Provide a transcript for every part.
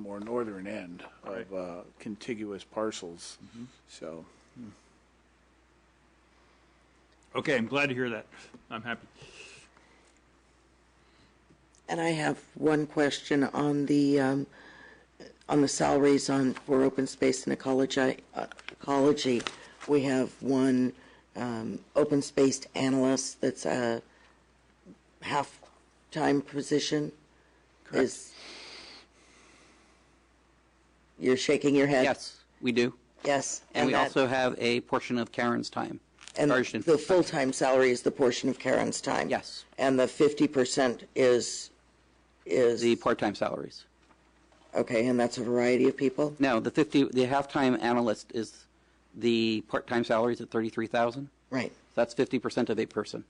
more northern end of Right. uh, contiguous parcels, so. Okay, I'm glad to hear that. I'm happy. And I have one question on the, um, on the salaries on, for open space and ecology. uh, Ecology, we have one, um, open space analyst that's a half-time position. Is, you're shaking your head? Yes, we do. Yes. And we that- also have a portion of Karen's time And charged in. the full-time salary is the portion of Karen's time? Yes. And the fifty percent is, is? The part-time salaries. Okay, and that's a variety of people? No, the 50, the half-time analyst is the part-time salaries at 33,000. Right, That's 50% of a person.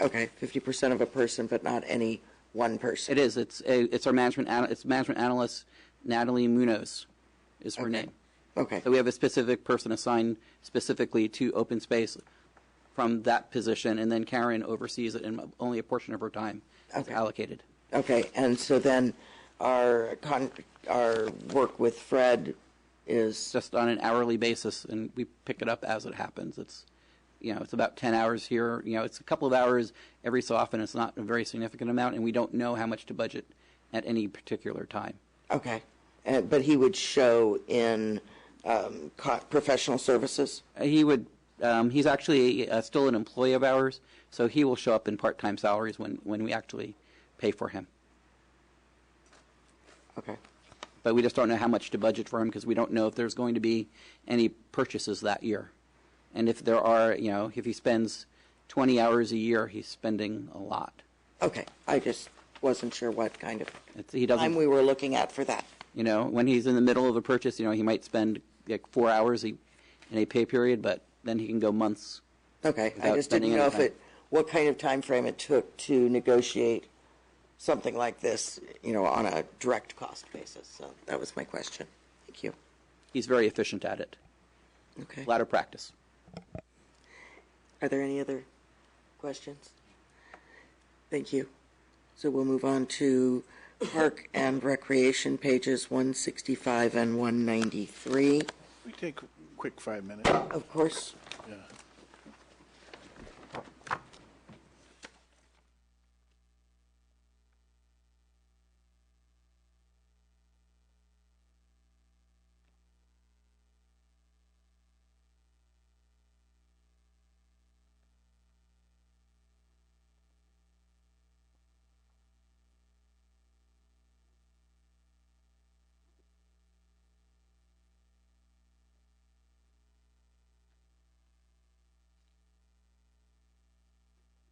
okay, fifty percent of a person, but not any one person? It is, it's, a- it's our management, ana- it's management analyst Natalie Munoz is her name. Okay, So we have a specific person assigned specifically to open space from that position, and then Karen oversees it, and only a portion of her time is Okay. allocated. okay, and so then our con, our work with Fred is, just on an hourly basis, and we pick it up as it happens. It's, you know, it's about 10 hours here. You know, it's a couple of hours every so often. It's not a very significant amount, and we don't know how much to budget at any particular time. okay. Uh, but he would show in, um, co- professional services? Uh, He would, um, he's actually uh, still an employee of ours, so he will show up in part-time salaries when, when we actually pay for him. Okay, But we just don't know how much to budget for him because we don't know if there's going to be any purchases that year. And if there are, you know, if he spends 20 hours a year, he's spending a lot. okay, I just wasn't sure what kind of It's, he time doesn't, we were looking at for that. you know, when he's in the middle of a purchase, you know, he might spend like four hours a- in a pay period, but then he can go months. Okay, I without just didn't spending know any if time. it, what kind of time frame it took to negotiate something like this, you know, on a direct cost basis. So that was my question. Thank you. He's very efficient at it. Okay. A lot of practice. Are there any other questions? Thank you. So we'll move on to Park and Recreation, pages 165 and 193. We take a quick five minutes. Of course,